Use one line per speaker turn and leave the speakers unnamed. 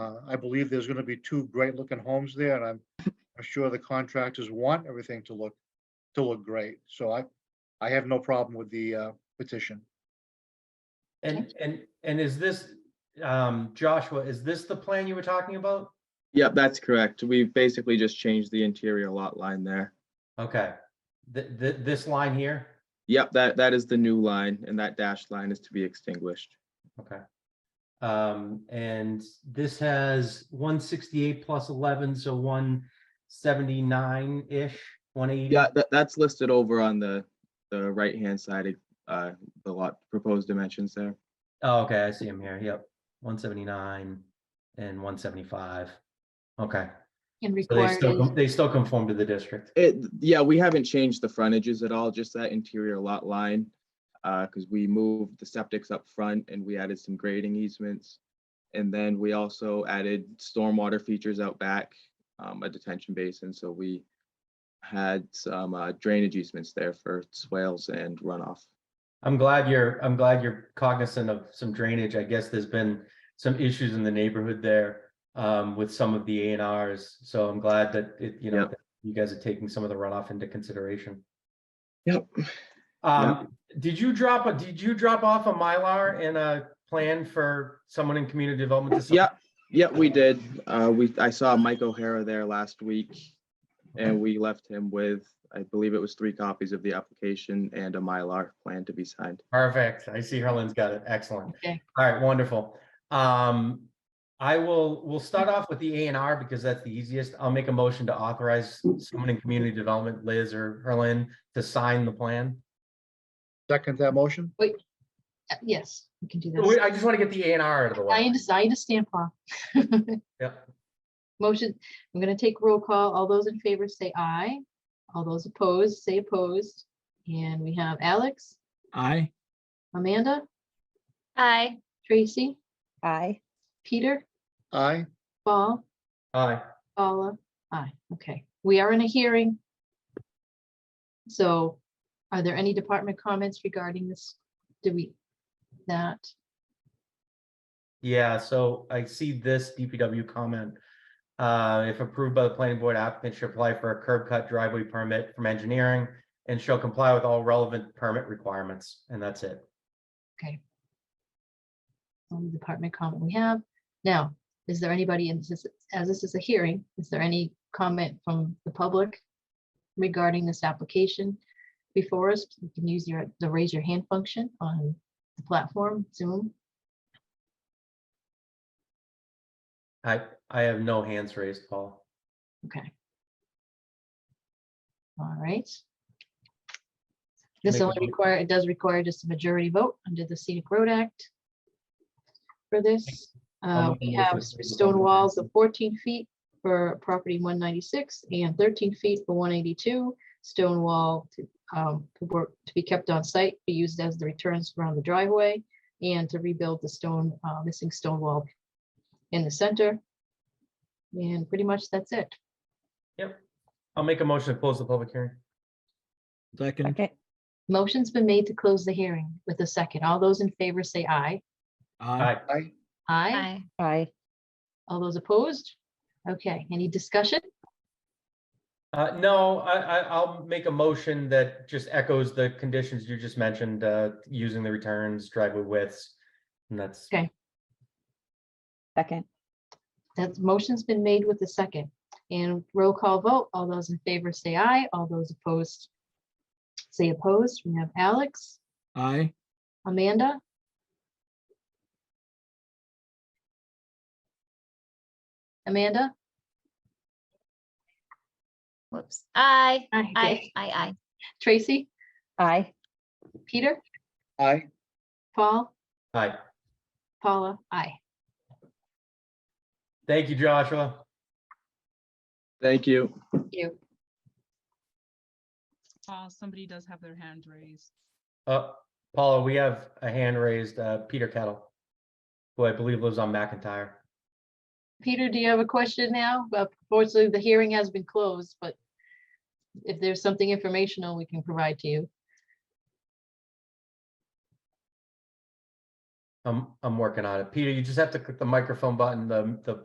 Uh, I believe there's gonna be two great looking homes there and I'm, I'm sure the contractors want everything to look, to look great. So I, I have no problem with the uh, petition.
And, and, and is this, um, Joshua, is this the plan you were talking about?
Yep, that's correct. We've basically just changed the interior lot line there.
Okay, th- th- this line here,
Yep, that, that is the new line and that dashed line is to be extinguished.
okay. Um, and this has one sixty-eight plus eleven, so one seventy-nine-ish, one eighty.
Yeah, that, that's listed over on the, the right-hand side of, uh, the lot, proposed dimensions there.
Oh, okay, I see him here, yep, one seventy-nine and one seventy-five. Okay,
And
so they still,
recorded.
con- they still conform to the district.
It, yeah, we haven't changed the frontages at all, just that interior lot line. Uh, cause we moved the septics up front and we added some grading easements. And then we also added stormwater features out back, um, a detention basin, so we had some uh, drainage easements there for swales and runoff.
I'm glad you're, I'm glad you're cognizant of some drainage. I guess there's been some issues in the neighborhood there um, with some of the A and Rs. So I'm glad that it, you know,
Yep.
that you guys are taking some of the runoff into consideration.
Yep.
Um, did you drop a, did you drop off a Mylar and a plan for someone in community development? to sign?
Yep, yep, we did. Uh, we, I saw Mike O'Hara there last week. And we left him with, I believe it was three copies of the application and a Mylar plan to be signed.
Perfect. I see Herlin's got it. Excellent.
Okay.
All right, wonderful. Um, I will, we'll start off with the A and R because that's the easiest. I'll make a motion to authorize someone in community development, Liz or Herlin, to sign the plan.
Second that motion?
Uh, Yes, we can do
We-
that.
Oh, I just want to get the A and R out of the
I
way.
understand, I understand, Paul.
Yep.
Motion, I'm gonna take roll call. All those in favor say aye. All those opposed, say opposed. And we have Alex,
Aye.
Amanda,
Aye.
Tracy,
Aye.
Peter,
Aye,
Paul,
Aye.
Paula, aye. Okay, we are in a hearing. So are there any department comments regarding this? Do we, that?
Yeah, so I see this DPW comment. Uh, if approved by the planning board, applicant should apply for a curb cut driveway permit from engineering and shall comply with all relevant permit requirements. And that's it.
only department comment we have. Now, is there anybody, in this? as this is a hearing, is there any comment from the public regarding this application before us? You can use your, the raise your hand function on the platform Zoom.
I, I have no hands raised, Paul.
Okay. All right. This
Make a
only
mo-
require, it does require just a majority vote under the Scenic Road Act for this.
I'll
Uh,
make a
We
motion
have
to approve the
stone
public
walls of fourteen feet for property one ninety-six and thirteen feet for one eighty-two. Stone wall to, um, to work, to be kept on site, be used as the returns around the driveway and to rebuild the stone, uh, missing stone wall in the center. And pretty much that's it.
I'll make a motion to close the public hearing.
Second,
Okay.
Motion's been made to close the hearing with a second. All those in favor say aye.
Uh-huh.
aye.
aye,
Aye.
Aye.
All those opposed? Okay, any discussion?
Uh, no, I, I, I'll make a motion that just echoes the conditions you just mentioned, uh, using the returns, driveway widths. And that's,
Okay.
Second.
That motion's been made with a second. And roll call vote, all those in favor say aye, all those opposed say opposed. We have Alex,
Aye.
Amanda, Amanda,
Whoops. Aye.
Aye,
Aye.
okay.
Aye.
Tracy,
Aye.
Peter,
aye.
Paul,
aye.
Paula, aye.
Thank you, Joshua.
Thank you.
Thank You.
Uh, somebody does have their hand raised.
Uh, Paula, we have a hand raised, uh, Peter Kettle. Who I believe lives on McIntyre.
Peter, do you have a question now? Uh, Unfortunately, the hearing has been closed, but if there's something informational we can provide to you.
I'm, I'm working on it. Peter, you just have to click the microphone button, the, the